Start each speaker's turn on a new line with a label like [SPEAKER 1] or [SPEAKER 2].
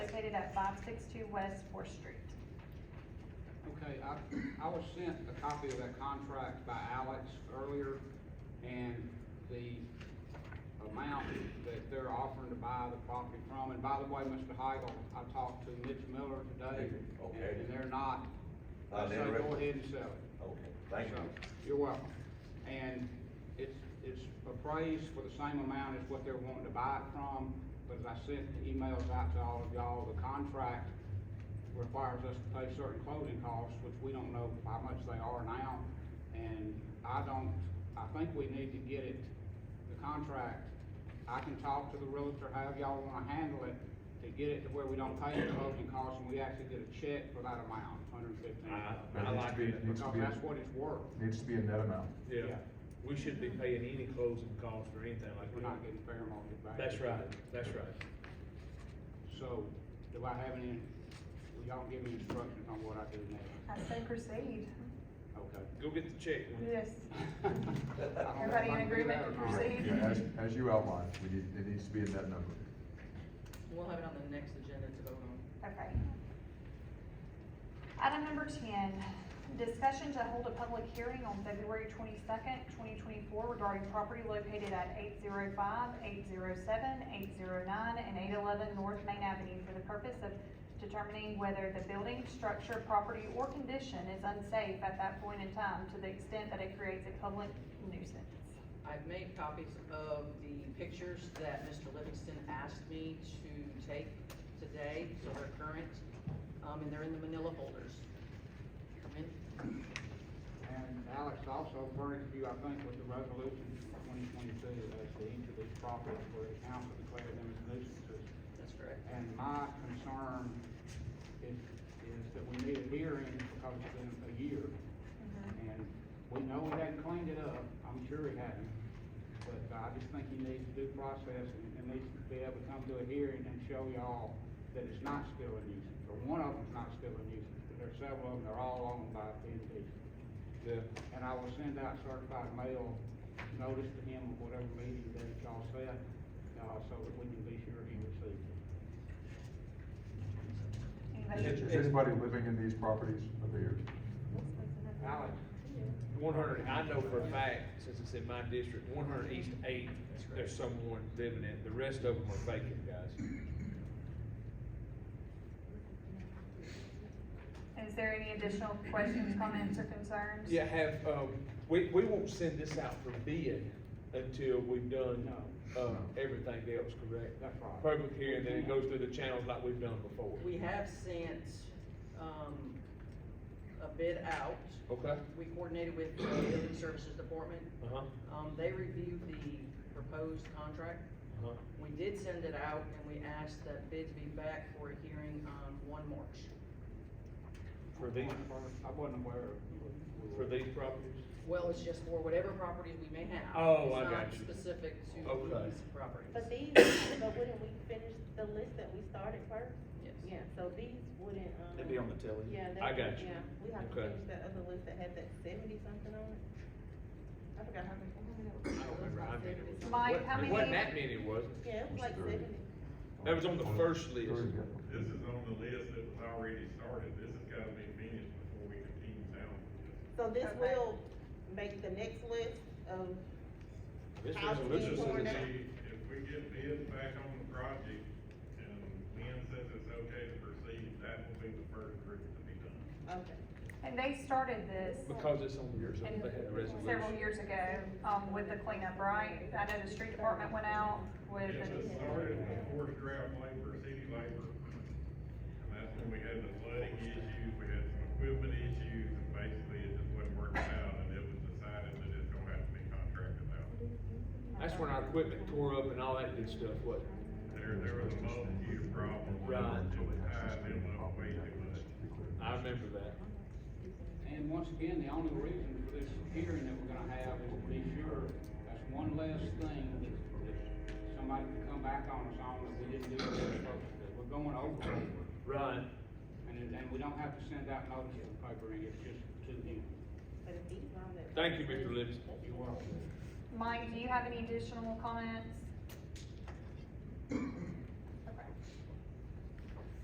[SPEAKER 1] at five six two West Fourth Street.
[SPEAKER 2] Okay, I, I was sent a copy of that contract by Alex earlier, and the amount that they're offering to buy the property from, and by the way, Mr. Heigl, I talked to Mitch Miller today,
[SPEAKER 3] Okay.
[SPEAKER 2] and and they're not, I
[SPEAKER 3] Not
[SPEAKER 2] say go
[SPEAKER 3] interested.
[SPEAKER 2] ahead and sell it.
[SPEAKER 3] Okay, thank you.
[SPEAKER 2] So, You're welcome. And it's, it's appraised for the same amount as what they're wanting to buy it from, but as I sent the emails out to all of y'all, the contract requires us to pay certain closing costs, which we don't know how much they are now. And I don't, I think we need to get it, the contract, I can talk to the realtor, however y'all wanna handle it, to get it to where we don't pay the closing costs, and we actually get a check for that amount, hundred and fifteen.
[SPEAKER 4] I, I like that.
[SPEAKER 2] Because that's what it's worth.
[SPEAKER 5] Needs to be a net amount.
[SPEAKER 4] Yeah, we shouldn't be paying any closing costs or anything like
[SPEAKER 2] We're
[SPEAKER 4] that.
[SPEAKER 2] not getting fair market value.
[SPEAKER 4] That's right, that's right.
[SPEAKER 2] So, do I have any, will y'all give me instructions on what I do next?
[SPEAKER 1] I say proceed.
[SPEAKER 2] Okay.
[SPEAKER 4] Go get the check. Wayne.
[SPEAKER 1] Yes.
[SPEAKER 2] I don't know if I
[SPEAKER 1] Everybody in
[SPEAKER 2] can do
[SPEAKER 1] agreement
[SPEAKER 2] that
[SPEAKER 1] to
[SPEAKER 2] or not.
[SPEAKER 1] proceed?
[SPEAKER 5] Yeah, as, as you outlined, we need, it needs to be a net number.
[SPEAKER 6] We'll have it on the next agenda to vote on.
[SPEAKER 1] Okay. Item number ten, discussion to hold a public hearing on February twenty-second, twenty twenty-four regarding property located at 805, 807, 809, and eight eleven North Main Avenue for the purpose of determining whether the building, structure, property, or condition is unsafe at that point in time to the extent that it creates a public nuisance.
[SPEAKER 6] I've made copies of the pictures that Mr. Livingston asked me to take today, so they're current, um, and they're in the manila folders. Chairman,
[SPEAKER 2] And Alex also furnished you, I think, with the resolution from twenty twenty-two as to each of these properties where the council declared them as nuisances.
[SPEAKER 6] that's correct.
[SPEAKER 2] And my concern is, is that we need a hearing because it's been a year. And we know he hadn't cleaned it up, I'm sure he hadn't, but I just think he needs due process and, and needs to be able to come to a hearing and show y'all that it's not still a nuisance, or one of them's not still a nuisance, but there's several of them, they're all owned by P and And I will send out certified mail notice to him of whatever meeting that y'all set, uh, so that we can be sure he receives it.
[SPEAKER 5] Is
[SPEAKER 1] Anybody?
[SPEAKER 5] is anybody living in these properties over here?
[SPEAKER 2] Alex,
[SPEAKER 4] One hundred, I know for a fact, since it's in my district, one hundred East Eight, there's someone living in, it. the rest of them are vacant, guys.
[SPEAKER 1] Is there any additional questions, comments, or concerns?
[SPEAKER 4] Yeah, have, um, we, we won't send this out for bid until we've done, um, everything else, correct?
[SPEAKER 2] that's right.
[SPEAKER 4] Public hearing, then it goes through the channels like we've done before.
[SPEAKER 6] We have sent, um, a bid out.
[SPEAKER 4] Okay,
[SPEAKER 6] We coordinated with the Building Services Department.
[SPEAKER 4] uh-huh,
[SPEAKER 6] Um, they reviewed the proposed contract.
[SPEAKER 4] uh-huh.
[SPEAKER 6] We did send it out, and we asked that bids be back for a hearing on one March.
[SPEAKER 4] For these,
[SPEAKER 2] I wasn't aware of.
[SPEAKER 4] for these properties?
[SPEAKER 6] Well, it's just for whatever properties we may have.
[SPEAKER 4] Oh, I got
[SPEAKER 6] It's
[SPEAKER 4] you. Oh,
[SPEAKER 6] not specific to
[SPEAKER 4] Okay.
[SPEAKER 6] these
[SPEAKER 7] But
[SPEAKER 6] properties.
[SPEAKER 7] these, but wouldn't we finish the list that we started first?
[SPEAKER 6] Yes.
[SPEAKER 7] Yeah, so these wouldn't, um.
[SPEAKER 8] They'd be on the telly.
[SPEAKER 7] Yeah, they.
[SPEAKER 4] I got you.
[SPEAKER 7] Yeah, we have to
[SPEAKER 4] Okay.
[SPEAKER 7] finish that other list that had that seventy something on it. I forgot how many.
[SPEAKER 4] I don't remember how many it was.
[SPEAKER 1] Mike,
[SPEAKER 4] What-
[SPEAKER 1] how
[SPEAKER 4] It wasn't
[SPEAKER 1] many-
[SPEAKER 4] that many, was it?
[SPEAKER 7] Yeah, it was like
[SPEAKER 5] Thirty.
[SPEAKER 7] seventy.
[SPEAKER 4] That was on the first list.
[SPEAKER 5] Thirty, yeah.
[SPEAKER 9] This is on the list that was already started, this has gotta be finished before we continue down with this.
[SPEAKER 7] So this
[SPEAKER 1] Okay.
[SPEAKER 7] will make the next list of,
[SPEAKER 4] This
[SPEAKER 7] House
[SPEAKER 4] resolution
[SPEAKER 7] being torn
[SPEAKER 4] says
[SPEAKER 7] down.
[SPEAKER 4] it's-
[SPEAKER 9] If- If we get bids back on the project, and Lynn says it's okay to proceed, that will be the first group to be done.
[SPEAKER 7] okay.
[SPEAKER 1] And they started this
[SPEAKER 4] because it's on yours, they had a resolution.
[SPEAKER 1] several years ago, um, with the cleanup, right? I know the street department went out with,
[SPEAKER 9] It was started before draft labor, city labor, and that's when we had the flooding issues, we had some equipment issues, and basically it just wasn't working out, and it was decided that it's gonna have to be contracted out.
[SPEAKER 4] That's when our equipment tore up and all that good stuff, wasn't it?
[SPEAKER 9] There, there was a multitude of problems.
[SPEAKER 4] Right.
[SPEAKER 9] It was tied them up way too much.
[SPEAKER 4] I remember that.
[SPEAKER 2] And once again, the only reason for this hearing that we're gonna have is to be sure, that's one less thing that, that somebody can come back on us on that we didn't do what we were supposed to do. We're going over, and,
[SPEAKER 4] Right.
[SPEAKER 2] it- and we don't have to send out notice to the paper, and it's just to him.
[SPEAKER 7] But if these on that.
[SPEAKER 4] Thank you, Mr. Livingston.
[SPEAKER 2] You're welcome.
[SPEAKER 1] Mike, do you have any additional comments?